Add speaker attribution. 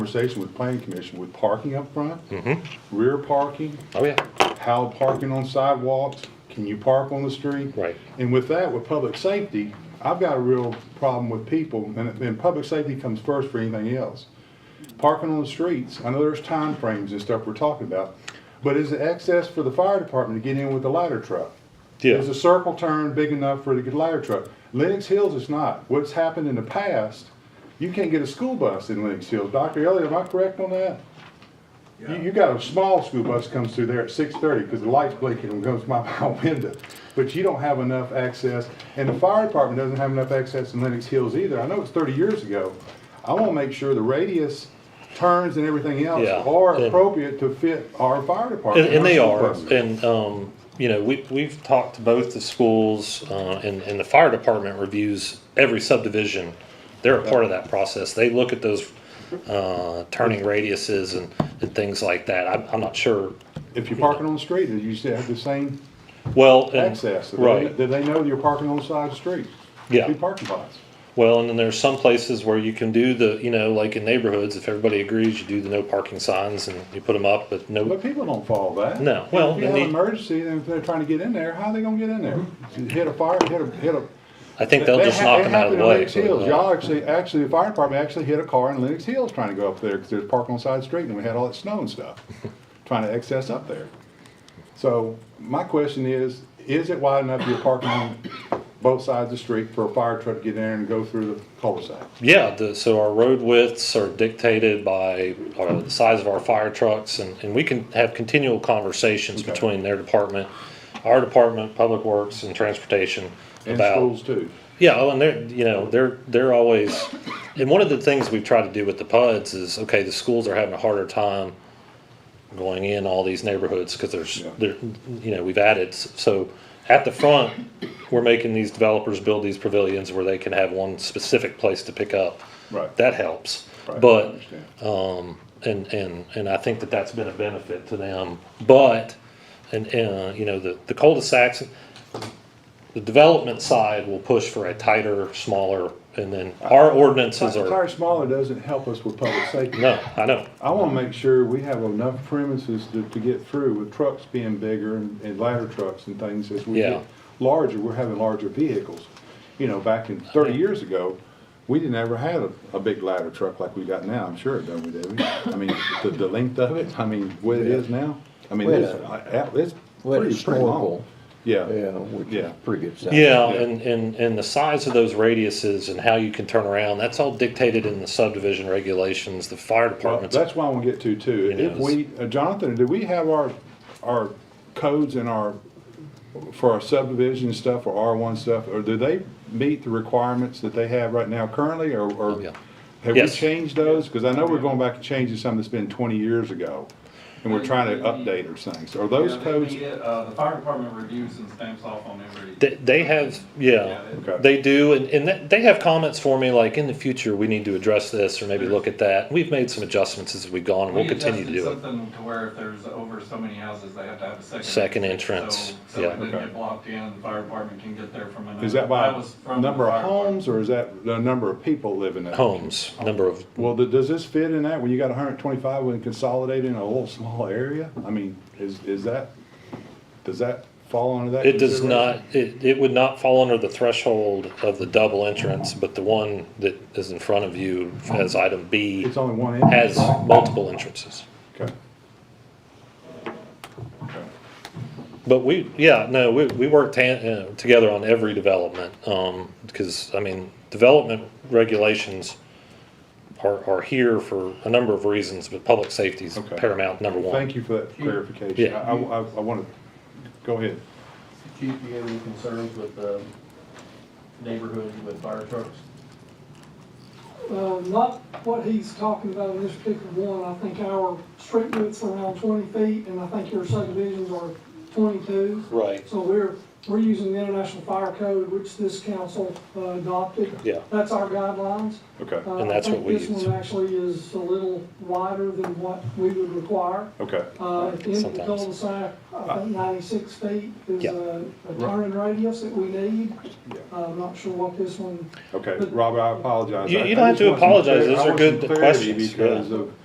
Speaker 1: conversation with planning commission with parking up front, rear parking,
Speaker 2: Oh, yeah.
Speaker 1: how parking on sidewalks, can you park on the street?
Speaker 2: Right.
Speaker 1: And with that, with public safety, I've got a real problem with people, and, and public safety comes first for anything else. Parking on the streets, I know there's time frames and stuff we're talking about, but is it access for the fire department to get in with the ladder truck?
Speaker 2: Yeah.
Speaker 1: Is a circle turn big enough for the ladder truck? Lenox Hills is not. What's happened in the past, you can't get a school bus in Lenox Hills. Dr. Elliott, am I correct on that? You, you got a small school bus comes through there at six thirty, because the light's blinking and goes by my window. But you don't have enough access, and the fire department doesn't have enough access in Lenox Hills either. I know it's thirty years ago. I wanna make sure the radius turns and everything else
Speaker 2: Yeah,
Speaker 1: are
Speaker 2: and-
Speaker 1: appropriate to fit our fire department.
Speaker 2: And, and they
Speaker 1: our school
Speaker 2: are,
Speaker 1: buses.
Speaker 2: and, um, you know, we, we've talked to both the schools, uh, and, and the fire department reviews every subdivision. They're a part of that process. They look at those, uh, turning radiuses and, and things like that. I'm, I'm not sure.
Speaker 1: If you're parking on the street, you still have the same
Speaker 2: Well, and-
Speaker 1: access. Do they-
Speaker 2: Right.
Speaker 1: Do they know that you're parking on the side of the street?
Speaker 2: Yeah.
Speaker 1: Two parking lots.
Speaker 2: Well, and then there's some places where you can do the, you know, like in neighborhoods, if everybody agrees, you do the no parking signs and you put them up, but no,
Speaker 1: But people don't follow that.
Speaker 2: No, well,
Speaker 1: If you
Speaker 2: they
Speaker 1: have an
Speaker 2: need-
Speaker 1: emergency, then if they're trying to get in there, how are they gonna get in there?
Speaker 2: Mm-hmm.
Speaker 1: Hit a fire, hit a, hit a.
Speaker 2: I think they'll
Speaker 1: That
Speaker 2: just
Speaker 1: ha-
Speaker 2: knock
Speaker 1: that
Speaker 2: them out of
Speaker 1: happened
Speaker 2: the
Speaker 1: in
Speaker 2: way.
Speaker 1: Lenox Hills.
Speaker 2: but, uh,
Speaker 1: Y'all actually, actually, the fire department actually hit a car in Lenox Hills trying to go up there, because there's parking on the side of the street, and we had all that snow and stuff, trying to access up there. So, my question is, is it wide enough you're parking on both sides of the street for a fire truck to get in and go through the cul-de-sac?
Speaker 2: Yeah, the, so our road widths are dictated by uh, the size of our fire trucks, and, and we can have continual conversations
Speaker 1: Okay.
Speaker 2: between their department, our department, Public Works, and Transportation
Speaker 1: And
Speaker 2: about
Speaker 1: schools too.
Speaker 2: yeah, oh, and they're you know they're they're always, and one of the things we've tried to do with the PUDs is okay, the schools are having a harder time going in all these neighborhoods because there's
Speaker 1: Yeah.
Speaker 2: there you know we've added s- so at the front we're making these developers build these pavilions where they can have one specific place to pick up.
Speaker 1: Right.
Speaker 2: That helps,
Speaker 1: Right, I
Speaker 2: but
Speaker 1: understand.
Speaker 2: um, and and and I think that that's been a benefit to them, but. And, uh, you know, the, the cul-de-sacs, the development side will push for a tighter, smaller, and then our ordinances are,
Speaker 1: Tire smaller doesn't help us with public safety.
Speaker 2: no, I know.
Speaker 1: I want to make sure we have enough premises to, to get through with trucks being bigger and, and ladder trucks and things as we
Speaker 2: Yeah.
Speaker 1: get larger, we're having larger vehicles. You know, back in thirty years ago, we didn't ever have a, a big ladder truck like we got now, I'm sure it don't we, do we? I mean, the, the length of it, I mean, what it is now, I mean,
Speaker 3: We had
Speaker 1: it's,
Speaker 3: a-
Speaker 1: I- I- it's
Speaker 3: we had a
Speaker 1: pretty, pretty long.
Speaker 3: snorkel. Yeah,
Speaker 1: Yeah,
Speaker 3: which
Speaker 1: Yeah.
Speaker 3: is pretty good size.
Speaker 2: Yeah,
Speaker 1: Yeah.
Speaker 2: and, and, and the size of those radiuses and how you can turn around, that's all dictated in the subdivision regulations, the fire
Speaker 1: well,
Speaker 2: departments.
Speaker 1: that's why I want to get to too.
Speaker 2: You know,
Speaker 1: If we, uh, Jonathan, do we have our, our codes and our for our subdivision stuff or R1 stuff, or do they meet the requirements that they have right now currently, or, or
Speaker 2: Oh, yeah.
Speaker 1: have we
Speaker 2: Yes.
Speaker 1: changed those? Because I know we're going back and changing something that's been 20 years ago, and we're trying to update our things. Are those
Speaker 4: Yeah, they
Speaker 1: codes,
Speaker 4: need it. Uh, the fire department reviews and stamps off on every.
Speaker 2: They, they have, yeah,
Speaker 1: Okay.
Speaker 2: they do, and, and that- they have comments for me, like, in the future, we need to address this, or maybe look at that. We've made some adjustments as we've gone, and we'll continue to
Speaker 4: We
Speaker 2: do it.
Speaker 4: adjusted something to where if there's over so many houses, they have to have a second.
Speaker 2: Second
Speaker 4: So-
Speaker 2: entrance,
Speaker 4: So
Speaker 2: yeah.
Speaker 4: it doesn't
Speaker 1: Okay.
Speaker 4: get blocked in, the fire department can get there from another.
Speaker 1: is that
Speaker 4: That
Speaker 1: by
Speaker 4: was from the
Speaker 1: number of
Speaker 4: fire department.
Speaker 1: homes, or is that the number of people living in it?
Speaker 2: Homes, number of,
Speaker 1: Well, th- does this fit in that, when you got 125, when consolidating a little small area? I mean, is, is that, does that fall under that?
Speaker 2: It does
Speaker 1: consideration?
Speaker 2: not, it, it would not fall under the threshold of the double entrance, but the one that is in front of you as item B
Speaker 1: It's only one entrance?
Speaker 2: has multiple entrances.
Speaker 1: Okay. Okay.
Speaker 2: But we, yeah, no, we, we worked tan- uh, together on every development, um, because, I mean, development regulations are, are here for a number of reasons, but public safety is
Speaker 1: Okay.
Speaker 2: paramount, number one.
Speaker 1: Thank you for that clarification.
Speaker 2: Yeah.
Speaker 1: I, I, I want to, go ahead.
Speaker 5: Chief, do you have any concerns with the neighborhood with fire trucks?
Speaker 6: Uh, not what he's talking about in this particular one. I think our street width's around twenty feet, and I think your subdivisions are twenty-two.
Speaker 2: Right.
Speaker 6: So we're, We're using the International Fire Code, which this council uh, adopted.
Speaker 2: Yeah.
Speaker 6: That's our guidelines.
Speaker 1: Okay,
Speaker 6: Uh,
Speaker 2: And that's what we
Speaker 6: I think
Speaker 2: use.
Speaker 6: this one actually is a little wider than what we would require.
Speaker 1: okay.
Speaker 6: Uh, At the end of the
Speaker 2: Sometimes.
Speaker 6: cul-de-sac, I think 96 feet is
Speaker 2: Yeah.
Speaker 6: a a turning radius that we need.
Speaker 1: Yeah.
Speaker 6: Uh, I'm not sure what this one
Speaker 1: Okay, Robert, I apologize.
Speaker 2: You-
Speaker 1: I-
Speaker 2: you
Speaker 1: I
Speaker 2: don't have
Speaker 1: just
Speaker 2: to
Speaker 1: want some
Speaker 2: apologize.
Speaker 1: clar- I
Speaker 2: Those are
Speaker 1: want some
Speaker 2: good
Speaker 1: clarity
Speaker 2: questions, yeah.
Speaker 1: Because of